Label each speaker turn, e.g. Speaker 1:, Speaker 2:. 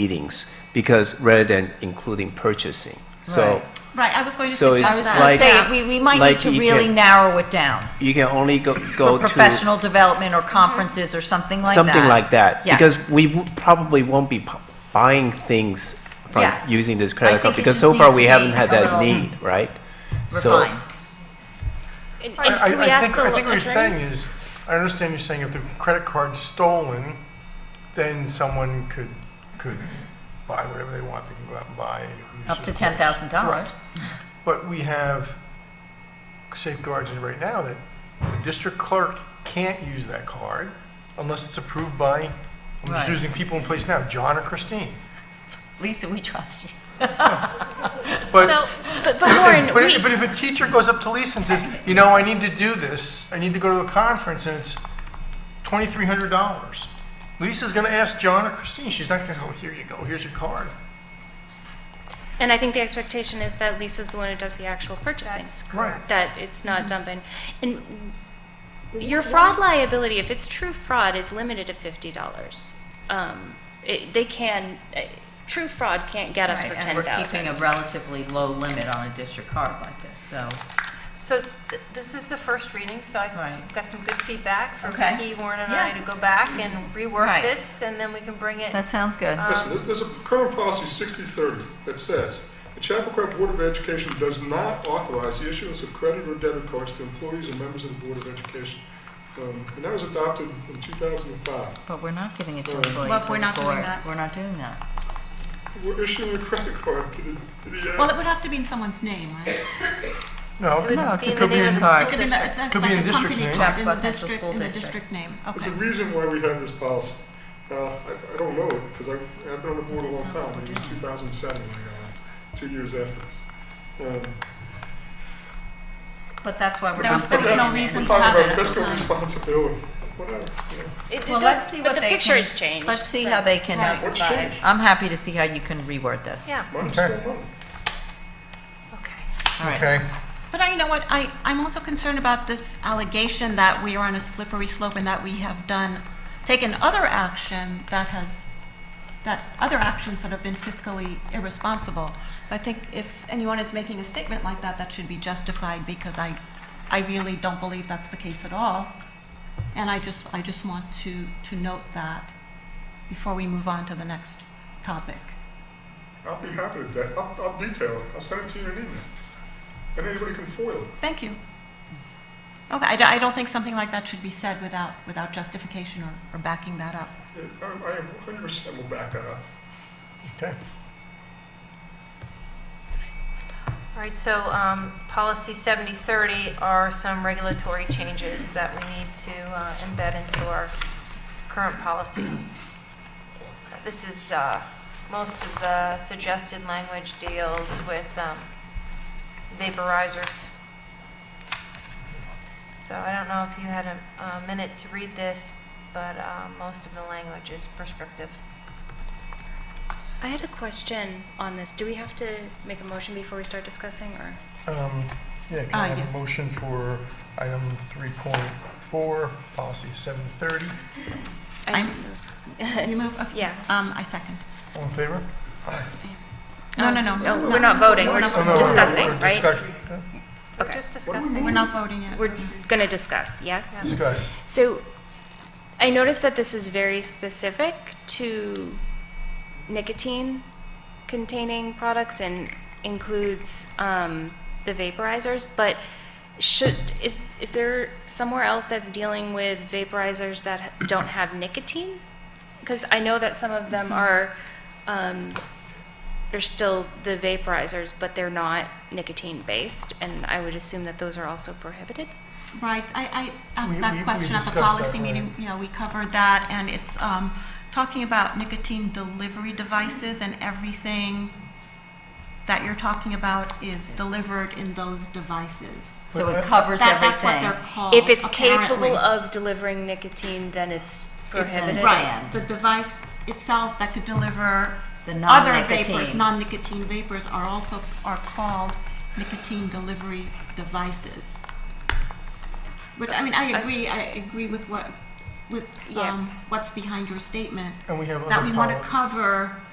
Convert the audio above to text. Speaker 1: meetings because rather than including purchasing. So
Speaker 2: Right.
Speaker 3: Right, I was going to
Speaker 1: So it's
Speaker 3: suggest
Speaker 1: I
Speaker 3: that.
Speaker 1: was
Speaker 2: I
Speaker 1: like-
Speaker 2: was gonna say, we, we might need
Speaker 1: like
Speaker 2: to
Speaker 1: you
Speaker 2: really
Speaker 1: can-
Speaker 2: narrow it down
Speaker 1: you can only go, go
Speaker 2: for
Speaker 1: to.
Speaker 2: professional development or conferences or something like that.
Speaker 1: something like that
Speaker 2: Yes.
Speaker 1: because we w- probably won't be pu- buying things from
Speaker 2: Yes.
Speaker 1: using this
Speaker 2: I
Speaker 1: credit
Speaker 2: think
Speaker 1: card
Speaker 2: it
Speaker 1: because
Speaker 2: just
Speaker 1: so far
Speaker 2: needs
Speaker 1: we
Speaker 2: to
Speaker 1: haven't
Speaker 2: be
Speaker 1: had
Speaker 2: a
Speaker 1: that
Speaker 2: little
Speaker 1: need right
Speaker 2: Refined.
Speaker 4: And,
Speaker 5: I-
Speaker 4: and can we
Speaker 5: I- I
Speaker 4: ask
Speaker 5: think-
Speaker 4: the
Speaker 5: I think what you're saying
Speaker 4: attorneys?
Speaker 5: is, I understand you're saying if the credit card's stolen, then someone could, could buy whatever they want, they can go out and buy. use
Speaker 2: Up to
Speaker 5: of
Speaker 2: ten
Speaker 5: course.
Speaker 2: thousand dollars.
Speaker 5: But we have safeguards in right now that the district clerk can't use that card unless it's approved by, I'm
Speaker 2: Right.
Speaker 5: just using people in place now, John or Christine.
Speaker 2: Lisa, we trust you.
Speaker 5: But,
Speaker 3: So,
Speaker 4: But, but Lauren,
Speaker 5: but
Speaker 4: we,
Speaker 5: if, but if a teacher goes up to Lisa and says, you know, I need to do this, I need to go to a conference and it's twenty-three hundred dollars. Lisa's gonna ask John or Christine, she's not gonna go, here you go, here's your card.
Speaker 4: and I think the expectation is that Lisa's the one who does the actual purchasing.
Speaker 5: Right.
Speaker 4: That it's
Speaker 2: Mm-hmm.
Speaker 4: not dumping. And your fraud liability, if it's true fraud, is limited to fifty dollars. Um, it, they can, uh, true fraud can't get us
Speaker 2: Right,
Speaker 4: for
Speaker 2: and
Speaker 4: ten
Speaker 2: we're keeping a
Speaker 4: thousand.
Speaker 2: relatively low limit on a district card like this, so.
Speaker 3: so th- this is the first reading, so I've
Speaker 2: Right.
Speaker 3: got some good feedback from
Speaker 2: Okay.
Speaker 3: Becky, Warren, and I
Speaker 2: Yeah.
Speaker 3: to go back and rework
Speaker 2: Right.
Speaker 3: this, and then we can bring it.
Speaker 2: That sounds good.
Speaker 6: Listen, there's- there's a current policy 6030 that says, "The Chappaqua Board of Education does not authorize the issuance of credit or debit cards to employees and members of the Board of Education." Um, And that was adopted in 2005.
Speaker 2: But we're not giving it to
Speaker 6: Well,
Speaker 2: employees.
Speaker 3: we're
Speaker 2: or
Speaker 3: not doing
Speaker 2: board.
Speaker 3: that.
Speaker 2: We're not doing that.
Speaker 6: We're issuing a credit card to the, to the. uh,
Speaker 7: Well, it would have to be in someone's name, right?
Speaker 5: No, it
Speaker 2: No, it's a
Speaker 5: could- could be
Speaker 3: name of
Speaker 5: in
Speaker 3: the
Speaker 5: card.
Speaker 3: school
Speaker 7: Could be in the-
Speaker 3: district.
Speaker 7: it's
Speaker 5: Could be
Speaker 7: like
Speaker 5: in
Speaker 7: a
Speaker 5: district
Speaker 7: company chart
Speaker 5: name.
Speaker 7: in the
Speaker 2: Chappaqua Central
Speaker 7: district-
Speaker 2: School
Speaker 7: in the
Speaker 2: District.
Speaker 7: district name,
Speaker 6: There's
Speaker 7: okay.
Speaker 6: a reason why we have this policy. Now, I, I don't know it, because I've, I've been on the board a long time, it was 2007, uh, two years after this. Um,
Speaker 2: But that's why we're
Speaker 7: There's-
Speaker 2: not.
Speaker 6: but
Speaker 7: there's
Speaker 2: putting
Speaker 7: no
Speaker 2: it in.
Speaker 7: reason
Speaker 6: We're
Speaker 7: to have
Speaker 6: talking
Speaker 7: it at
Speaker 6: about
Speaker 7: the
Speaker 6: fiscal
Speaker 7: time.
Speaker 6: responsibility, whatever, you know.
Speaker 4: It- it
Speaker 2: Well,
Speaker 4: does-
Speaker 2: let's see
Speaker 4: but
Speaker 2: what
Speaker 4: the
Speaker 2: they
Speaker 4: picture
Speaker 2: can-
Speaker 4: has changed.
Speaker 2: let's see how they can-
Speaker 4: since
Speaker 6: What's
Speaker 4: 2005.
Speaker 6: changed?
Speaker 2: I'm happy to see how you can reword this.
Speaker 3: Yeah,
Speaker 6: Money's still
Speaker 5: Okay.
Speaker 6: money.
Speaker 3: okay.
Speaker 2: All right.
Speaker 5: Okay.
Speaker 7: But I, you know what, I, I'm also concerned about this allegation that we are on a slippery slope and that we have done, taken other action that has, that other actions that have been fiscally irresponsible. I think if anyone is making a statement like that, that should be justified because I, I really don't believe that's the case at all. And I just, I just want to, to note that before we move on to the next topic.
Speaker 6: I'll be happy with that. I'll, I'll detail it. I'll send it to you in an email. And anybody can foil it.
Speaker 7: Thank you. Okay, I, d- I don't think something like that should be said without, without justification or, or backing that up.
Speaker 6: I, Um, I am 100% will back that up.
Speaker 5: Okay.
Speaker 3: All right, so um, policy 7030 are some regulatory changes that we need to uh, embed into our current policy. This is, uh, most of the suggested language deals with um, vaporizers. So I don't know if you had a a minute to read this, but uh, most of the language is prescriptive.
Speaker 4: I had a question on this. Do we have to make a motion before we start discussing, or?
Speaker 5: Um, Yeah, can
Speaker 7: Ah,
Speaker 5: I have
Speaker 7: yes.
Speaker 5: a motion for item 3.4, policy 730?
Speaker 4: I
Speaker 7: I'm-
Speaker 4: move.
Speaker 7: You move? Okay.
Speaker 4: Yeah.
Speaker 7: Um, I second.
Speaker 5: All in favor? Aye.
Speaker 7: No,
Speaker 4: Um,
Speaker 7: no, no.
Speaker 4: No, we're not voting, we're
Speaker 5: Oh, no,
Speaker 4: not
Speaker 5: no,
Speaker 4: discussing,
Speaker 5: we're
Speaker 4: right?
Speaker 5: discuss- uh,
Speaker 3: We're
Speaker 4: Okay.
Speaker 3: just
Speaker 6: What do we
Speaker 3: discussing.
Speaker 7: We're not voting yet.
Speaker 4: We're gonna discuss, yeah?
Speaker 5: Discuss.
Speaker 4: So I noticed that this is very specific to nicotine containing products and includes um, the vaporizers, but should, is, is there somewhere else that's dealing with vaporizers that don't have nicotine? Because I know that some of them are, um, they're still the vaporizers, but they're not nicotine based, and I would assume that those are also prohibited?
Speaker 7: Right, I, I
Speaker 5: We-
Speaker 7: asked
Speaker 5: we- we
Speaker 7: that question at
Speaker 5: discussed
Speaker 7: the
Speaker 5: that,
Speaker 7: policy
Speaker 5: right.
Speaker 7: meeting. Yeah, we covered that, and it's, um, talking about nicotine delivery devices and everything that you're talking about is delivered in those devices.
Speaker 2: So it covers
Speaker 7: That, that's what
Speaker 2: everything.
Speaker 7: they're called,
Speaker 4: If it's
Speaker 7: apparently.
Speaker 4: capable of delivering nicotine, then it's prohibited.
Speaker 2: Right.
Speaker 7: Right, the device itself that could deliver
Speaker 2: The
Speaker 7: other vapors,
Speaker 2: non-nicotine.
Speaker 7: non-nicotine vapors are also, are called nicotine delivery devices. Which, I mean, I agree, I agree with what, with,
Speaker 4: Yeah.
Speaker 7: um, what's behind your statement,
Speaker 5: And we have other
Speaker 7: that we want to
Speaker 5: policies.
Speaker 7: cover